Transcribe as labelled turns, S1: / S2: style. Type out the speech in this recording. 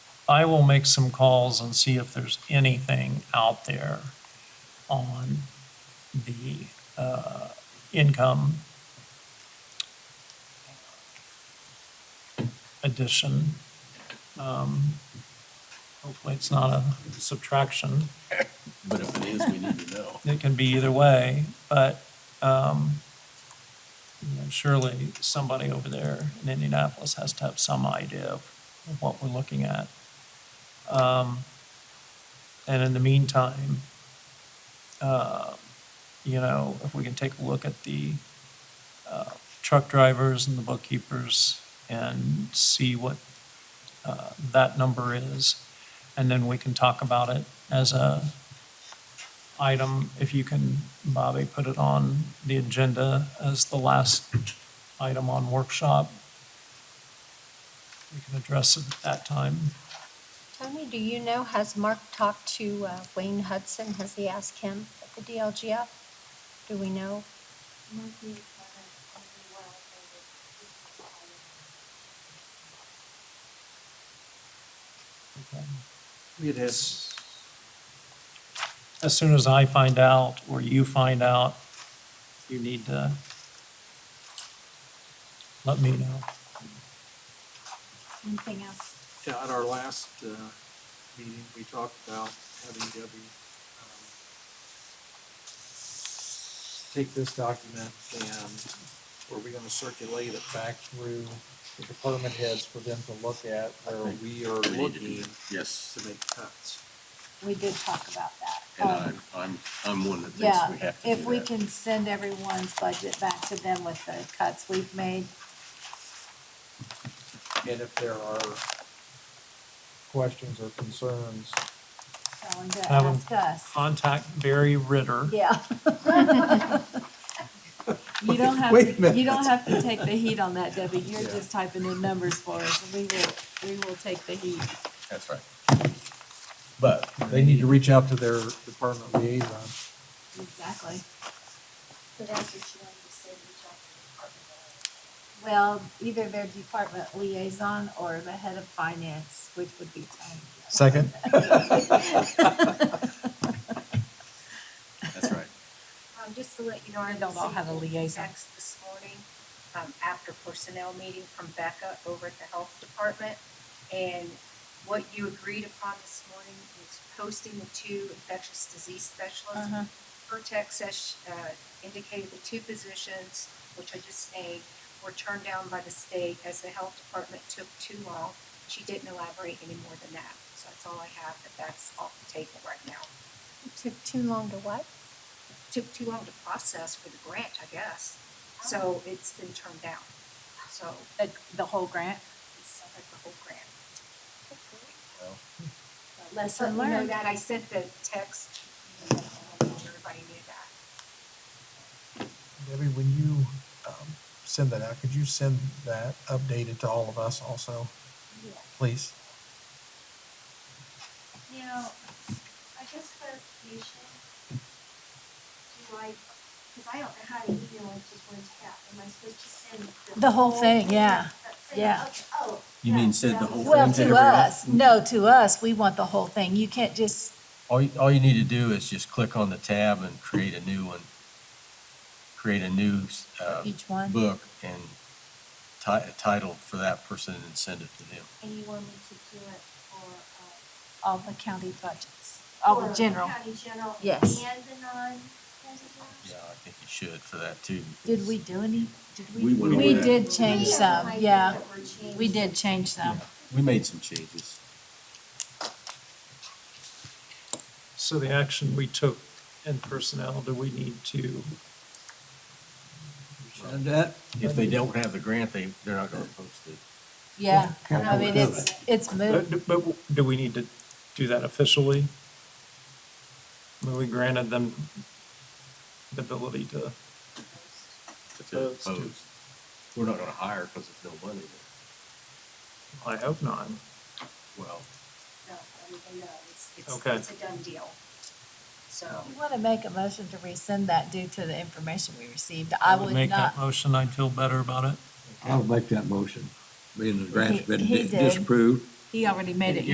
S1: I will make some calls and see if there's anything out there on the uh, income addition. Um, Hopefully, it's not a subtraction.
S2: But if it is, we need to know.
S1: It can be either way, but um, you know, surely somebody over there in Indianapolis has to have some idea of of what we're looking at. Um, And in the meantime, uh, you know, if we can take a look at the uh, truck drivers and the bookkeepers and see what uh, that number is, and then we can talk about it as a item, if you can, Bobby, put it on the agenda as the last item on workshop. We can address it at that time.
S3: Tony, do you know, has Mark talked to uh, Wayne Hudson? Has he asked him at the DLGF? Do we know?
S1: Okay.
S2: It
S1: has- As soon as I find out, or you find out, you need to let me know.
S3: Anything else?
S4: Yeah, at our last uh, meeting, we talked about having Debbie um, take this document and were we gonna circulate it back through the department heads for them to look at where we are
S2: We need to do
S4: looking
S2: that. Yes,
S4: to make cuts?
S5: We did talk about that.
S2: and
S5: Um,
S2: I'm, I'm, I'm one that thinks
S5: Yeah,
S2: we have to do
S5: if we
S2: that.
S5: can send everyone's budget back to them with the cuts we've made,
S4: And if there are questions or concerns,
S5: tell them to
S1: Have 'em.
S5: ask us.
S1: Contact Barry Ritter.
S5: Yeah. You don't have,
S4: Wait a
S5: to- you
S4: minute.
S5: don't have to take the heat on that, Debbie. You're
S4: Yeah.
S5: just typing in numbers for us. We will, we will take the heat.
S2: That's right. But
S4: they need to reach out to their department liaison.
S5: Exactly.
S6: So that's what you wanted to say, reach out to the department head.
S5: Well, either their department liaison or the head of finance, which would be Tony.
S4: Second?
S2: That's right.
S6: Um, just to let you know, I
S5: They don't all have a
S6: received
S5: liaison.
S6: Text this morning, um, after personnel meeting from Becca over at the health department. And what you agreed upon this morning is posting the two infectious disease specialists.
S5: Uh-huh.
S6: Her text says, uh, indicated the two positions, which I just named, were turned down by the state as the health department took too long. She didn't elaborate any more than that, so that's all I have, but that's off the table right now.
S3: Took too long to what?
S6: Took too long to process for the grant, I guess,
S3: Oh.
S6: so it's been turned down. So
S5: The, the whole grant?
S6: it sounds like the whole grant.
S5: Lesson
S6: Let you know
S5: learned.
S6: That I sent the text, and everybody knew that.
S7: Debbie, when you um, send that out, could you send that updated to all of us also? Please?
S6: Now, I guess clarification, do I, because I don't know how to email it just one tap, am I supposed to send?
S5: The whole thing, yeah,
S6: Send it?
S5: yeah.
S6: Okay, Oh.
S2: You mean send the
S6: that
S2: whole
S6: was-
S5: Well,
S2: thing
S5: to us, no, to us, we want the whole thing. You can't just,
S8: All, you- all you need to do is just click on the tab and create a new one. Create a new, uh,
S5: each one.
S8: book and ti- a title for that person and send it to them.
S6: And you want me to do it for, uh?
S5: All the county budgets, all Oh, the
S6: for
S5: general.
S6: County general.
S5: Yes.
S6: And the non-residents?
S8: Yeah, I think you should for that too.
S5: Did we do any, did we?
S2: We went over that.
S5: did change some, yeah, we did change
S8: Yeah,
S5: some.
S8: We made some changes.
S1: So the action we took in personnel, do we need to?
S8: If they don't have the grant, they, they're not gonna post it.
S5: Yeah, I mean, it's, it's
S1: But,
S5: moved.
S1: but do we need to do that officially? Well, We granted them the ability to,
S8: If they're
S1: Post.
S8: Post. We're not gonna hire because there's no money there.
S1: I hope not.
S8: Well,
S6: No, everybody knows, it's,
S1: Okay.
S6: it's a done deal. So,
S5: You want to make a motion to rescind that due to the information we received. I would
S1: Make that
S5: not,
S1: motion, I'd feel better about it.
S2: I'll make that motion, being the
S5: grant's He- been he di- did. disapproved. he already made it